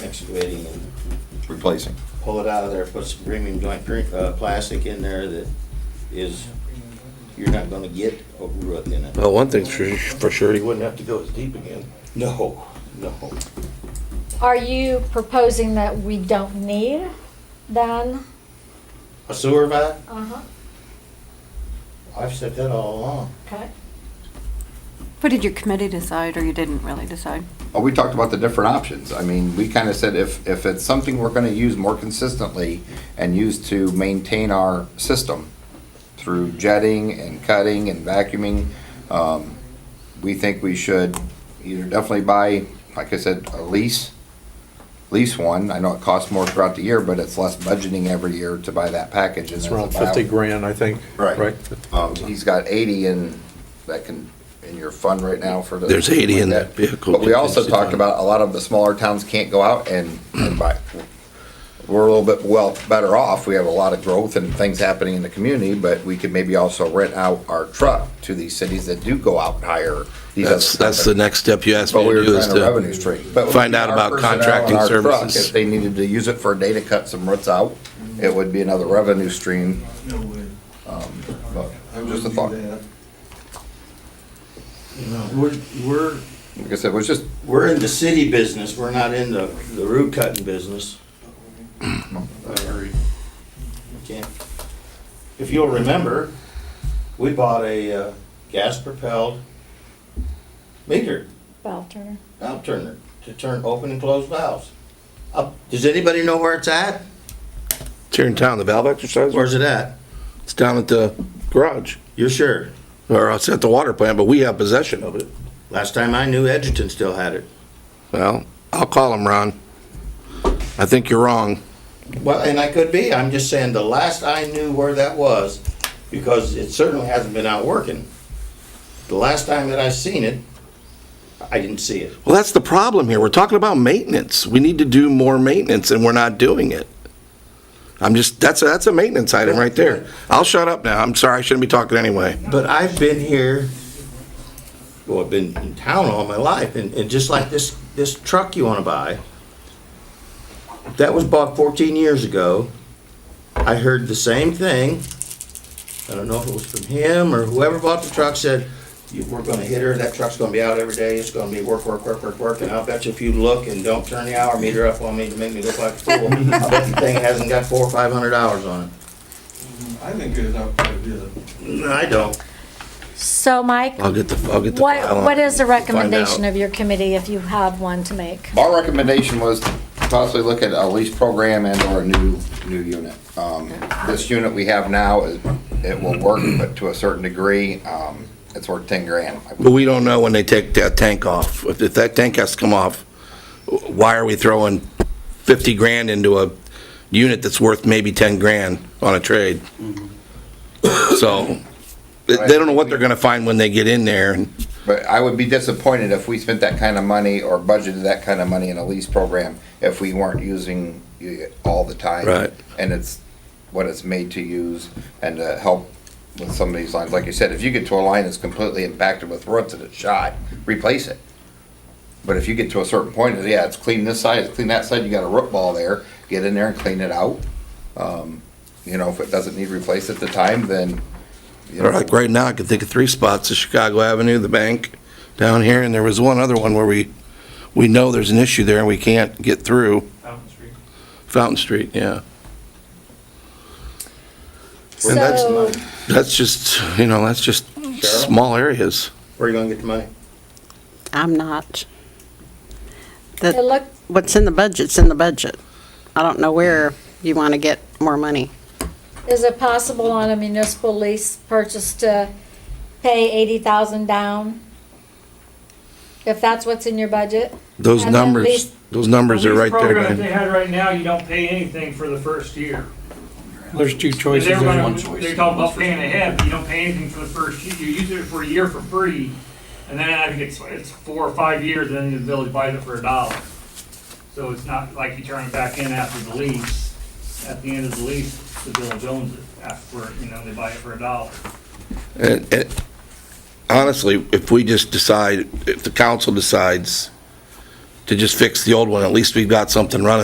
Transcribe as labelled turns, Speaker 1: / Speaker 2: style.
Speaker 1: excavating and
Speaker 2: replacing.
Speaker 1: pull it out of there, put some premium joint, pre- uh, plastic in there that is, you're not gonna get a root in it.
Speaker 3: Well, one thing's for, for sure, you wouldn't have to go as deep again.
Speaker 1: No, no.
Speaker 4: Are you proposing that we don't need then?
Speaker 1: A sewer pipe?
Speaker 4: Uh-huh,
Speaker 1: I've said that all along.
Speaker 4: okay.
Speaker 5: But did your committee decide, or you didn't really decide?
Speaker 2: Well, we talked about the different options. I mean, we kind of said if, if it's something we're going to use more consistently and use to maintain our system through jetting and cutting and vacuuming, um, we think we should either definitely buy, like I said, a lease, lease one. I know it costs more throughout the year, but it's less budgeting every year to buy that package. and
Speaker 3: It's around
Speaker 2: about-
Speaker 3: fifty grand, I think.
Speaker 2: Right. Um, he's got eighty in, that can, in your fund right now for the.
Speaker 3: There's 80 in that vehicle
Speaker 2: But we also
Speaker 3: contingency
Speaker 2: talked
Speaker 3: fund.
Speaker 2: about a lot of the smaller towns can't go out and, and buy. We're a little bit well, better off. We have a lot of growth and things happening in the community, but we could maybe also rent out our truck to these cities that do go out and hire. these other
Speaker 3: That's, that's the
Speaker 2: companies.
Speaker 3: next step you asked me
Speaker 2: But we
Speaker 3: to
Speaker 2: were
Speaker 3: do is
Speaker 2: trying to
Speaker 3: to,
Speaker 2: revenue stream. But with
Speaker 3: find out
Speaker 2: our
Speaker 3: about
Speaker 2: personnel and
Speaker 3: contracting
Speaker 2: our truck,
Speaker 3: services.
Speaker 2: If they needed to use it for a day to cut some roots out, it would be another revenue stream.
Speaker 6: No way.
Speaker 2: But
Speaker 6: I wouldn't
Speaker 2: Just a
Speaker 6: do
Speaker 2: thought.
Speaker 6: that. You know, we're, we're,
Speaker 2: Like I said, it was just
Speaker 1: We're in the city business, we're not in the, the root cutting business. Can't- If you'll remember, we bought a, uh, gas propelled meter,
Speaker 4: Val Turner.
Speaker 1: valve turner, to turn open and close valves. Up, does anybody know where it's at?
Speaker 3: it's here in town, the valve exerciser,
Speaker 1: Where's it at?
Speaker 3: it's down at the garage.
Speaker 1: You're sure?
Speaker 3: Or it's at the water plant, but we have possession of it.
Speaker 1: Last time I knew Edgerton still had it.
Speaker 3: Well, I'll call him, Ron. I think you're wrong.
Speaker 1: Well, and I could be, I'm just saying the last I knew where that was, because it certainly hasn't been out working. The last time that I seen it, I didn't see it.
Speaker 3: Well, that's the problem here. We're talking about maintenance. We need to do more maintenance and we're not doing it. I'm just, that's, a- that's a maintenance item right there. I'll shut up now. I'm sorry, I shouldn't be talking anyway.
Speaker 1: But I've been here, well, I've been in town all my life, and, and just like this, this truck you wanna buy, that was bought fourteen years ago. I heard the same thing. I don't know if it was from him or whoever bought the truck said, "You- we're gonna hit her, that truck's gonna be out every day, it's gonna be work, work, work, work, work, and I'll bet you if you look and don't turn the hour meter up on me to make me look like a fool, I bet the thing hasn't got four or five hundred hours on
Speaker 6: I think it's up to the,
Speaker 1: it. I don't.
Speaker 4: So Mike,
Speaker 3: I'll get the, I'll get the. file
Speaker 4: what,
Speaker 3: on
Speaker 4: what
Speaker 3: it.
Speaker 4: is the
Speaker 3: Find out.
Speaker 4: recommendation of your committee if you have one to make?
Speaker 2: Our recommendation was to possibly look at a lease program and or a new, new unit. Um, this unit we have now, is- it will work, but to a certain degree, um, it's worth ten grand.
Speaker 3: But we don't know when they take that tank off. If if that tank has to come off, why are we throwing 50 grand into a unit that's worth maybe 10 grand on a trade? So, they they don't know what they're gonna find when they get in there.
Speaker 2: But I would be disappointed if we spent that kind of money or budgeted that kind of money in a lease program if we weren't using it all the time.
Speaker 3: Right.
Speaker 2: And it's what it's made to use and to help with some of these lines. Like you said, if you get to a line that's completely impacted with roots and it's shot, replace it. But if you get to a certain point, it's, yeah, it's clean this side, it's clean that side, you got a root ball there, get in there and clean it out. Um, You know, if it doesn't need replaced at the time, then. you know,
Speaker 3: Like, right now, I can think of three spots, the Chicago Avenue, the bank down here, and there was one other one where we, we know there's an issue there and we can't get through.
Speaker 7: Fountain Street.
Speaker 3: Fountain Street, yeah.
Speaker 1: And that's
Speaker 4: So-
Speaker 1: mine.
Speaker 3: That's just, you know, that's just small areas.
Speaker 1: Where are you gonna get the money?
Speaker 5: I'm not.
Speaker 4: It
Speaker 5: That,
Speaker 4: looked,
Speaker 5: what's in the budget's in the budget. I don't know where you want to get more money.
Speaker 4: is it possible on a municipal lease purchase to pay eighty thousand down? If that's what's in your budget?
Speaker 3: Those
Speaker 4: And then
Speaker 3: numbers,
Speaker 4: lease-
Speaker 3: those numbers are
Speaker 7: These
Speaker 3: right there,
Speaker 7: programs
Speaker 3: man.
Speaker 7: They had right now, you don't pay anything for the first year.
Speaker 8: There's two
Speaker 7: Because
Speaker 8: choices.
Speaker 7: they're
Speaker 8: There's
Speaker 7: gonna,
Speaker 8: one choice.
Speaker 7: they're talking about paying ahead, but you don't pay anything for the first year, you use it for a year for free, and then I think it's, it's four or five years, and then the village buys it for a dollar. So it's not like you turn it back in after the lease, at the end of the lease, the village owns it, after, you know, they buy it for a dollar.
Speaker 3: And- and Honestly, if we just decide, if the council decides to just fix the old one, at least we've got something running